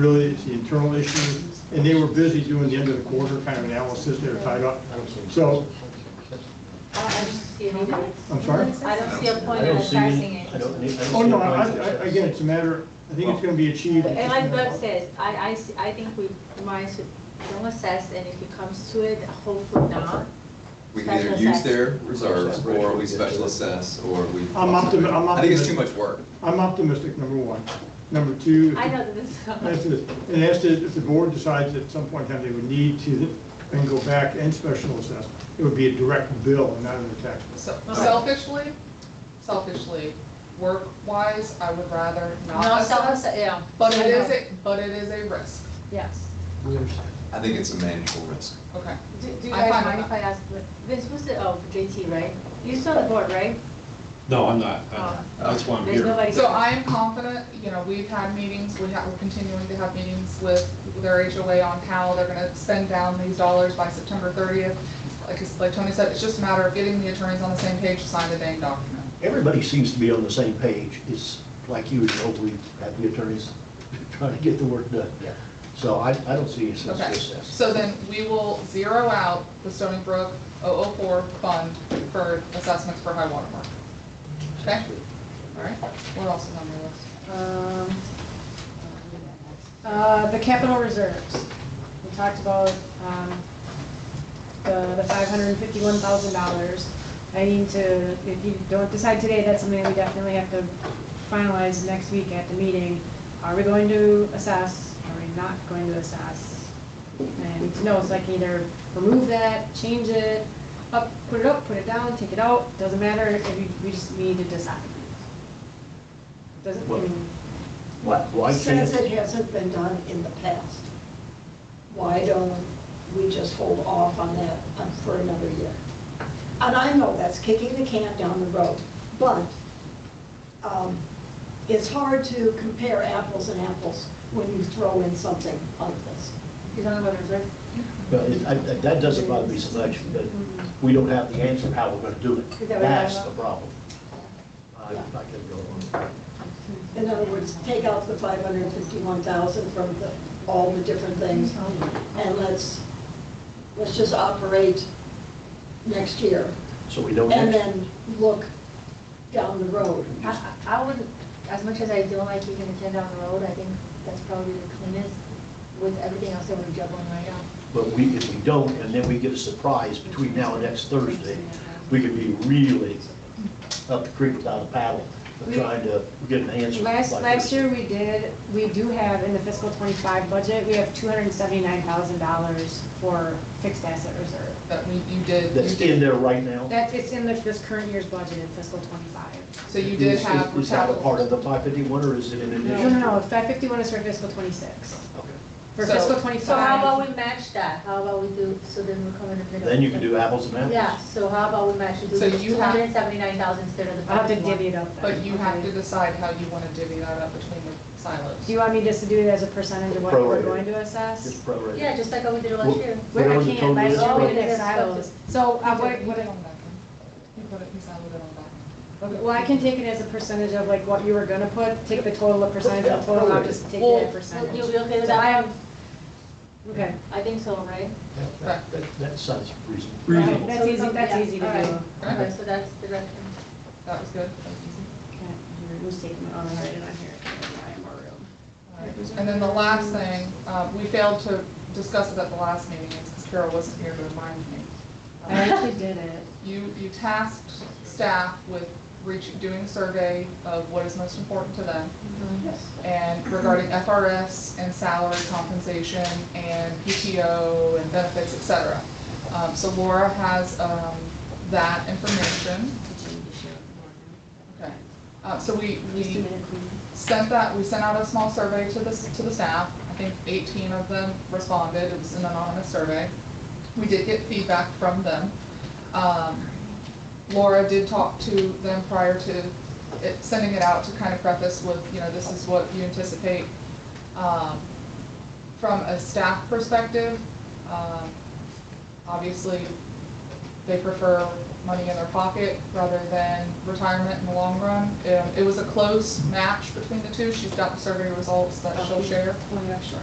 Really, it's the internal issue, and they were busy doing the end of the quarter kind of analysis, they were tied up. So, I don't- I don't see any minutes. I'm sorry? I don't see a point I in don't see any- attaching I it. don't need- I don't Oh, see no, a I, point. I- again, it's a matter, I think it's gonna be achieved. And like Doug says, I, I, see- I think we might should don't assess, and if it comes to it, hopefully not. We can either Special use assess. their reserves, or we special assess, or we. I'm optimi- I'm I think it's too optimistic. much work. I'm optimistic, number one. Number two. I know that this is. That's it. And as to, if the board decides at some point in time they would need to, then go back and special assess, it would be a direct bill and not an tax bill. So- Selfishly, selfishly, work-wise, I would rather not No, assess, self, yeah. but it is, a but it is a risk, Yes. I think it's a manageable risk. okay. Do do you I'm guys fine mind with if I ask, Vince, was the, oh, JT, right? You saw the board, right? No, I'm not. Uh, That's why I'm There's here. nobody. So I am confident, you know, we've had meetings, we have, we're continuing to have meetings with their HOA on how they're gonna spend down these dollars by September thirtieth. Like, it's- like Tony said, it's just a matter of getting the attorneys on the same page to sign the dang document. Everybody seems to be on the same page. It's like usual, we have the attorneys trying to get the work done. Yeah. So I, I don't see any sense Okay, of this. so then we will zero out the Stony Brook 004 fund for assessments for high water mark. Okay? All right, what else is on the list? Um, uh, The capital reserves. We talked about um, the the $551,000. I need to, if you don't decide today, that's something that we definitely have to finalize next week at the meeting. Are we going to assess? Are we not going to assess? And I need to know, so I can either remove that, change it, up, put it up, put it down, take it out, doesn't matter, if you- we just need to decide. Doesn't, I mean. Why- Why Since can't, it hasn't been done in the past, why don't we just hold off on that um, for another year? And I know that's kicking the can down the road, but um, it's hard to compare apples and apples when you throw in something like this. You're talking about reserve? well, it- I- I- that doesn't bother me so much, but we don't have the answer how we're going to do it. Is that what you're That's the talking problem. I'm not going to go on. In other words, take out the 551,000 from the, all the different things, and let's, let's just operate next year. So we know and next, then look down the road. I, I I would, as much as I don't like kicking the can down the road, I think that's probably the cleanest with everything else that we're juggling right now. but we, if we don't, and then we get a surprise between now and next Thursday, we could be really up the creek without a paddle, of We- trying to get an answer. Last, like last this. year we did, we do have in the fiscal twenty-five budget, we have two hundred and seventy-nine thousand dollars for fixed asset reserve. That we, you did, you That's in did, there right now? That's, it's in the, this current year's budget in fiscal twenty-five. so you did Is- have. Is that a capital- part of the 551, or is it in No, no, addition? no, five fifty-one is for fiscal twenty-six. Okay. For So- fiscal So how twenty-five, about we match that? How about we do, so then we're coming in the middle. Then you can do apples and apples. Yeah, so how about we match, do So you two have- hundred and seventy-nine thousand instead of the I'll have to five divvy fifty-one? it up then. But you have to decide how you want to divvy that up between the silos. Do you want me just to do it as a percentage of what we're Prorated. going to assess? Just prorate. Yeah, just like how we did it last year. Where Whatever the I can't, total last is, year we prorate. did have silos. So, You uh, did- what, you what, did on that one. You put it, you siloed it on that. one. well, I can take it as a percentage of like what you were gonna put, take the total, of percentage of total, I'll just take it Well, as a percentage. You'll be okay with So I that? have, okay, I think so, right? Yeah, That, that- that sounds reasonable. Reasonable. that's So we easy, come- that's yeah, easy to all right. do. Okay, so that's the direction. That was good, that was easy. Okay, here, who's taking it? Oh, I write it on here. I have more room. All right. And then the last thing, uh, we failed to discuss it at the last meeting, it's because Carol wasn't here to remind me. I actually did it. You, you tasked staff with reaching, doing a survey of what is most important to them. Mm-hmm. And regarding FRS and salary compensation and PTO and benefits, et cetera. Um, so Laura has, um, that information. Okay. Uh, so we, Just a we minute, please. sent that, we sent out a small survey to the, to the staff. I think 18 of them responded. It was an anonymous survey. We did get feedback from them. Um, Laura did talk to them prior to it- sending it out to kind of preface with, you know, this is what you anticipate. Um, From a staff perspective, um, obviously, uh, They prefer money in their pocket rather than retirement in the long run. Um, It was a close match between the two. She's got the survey results that she'll share. Oh, Well, yeah, sure.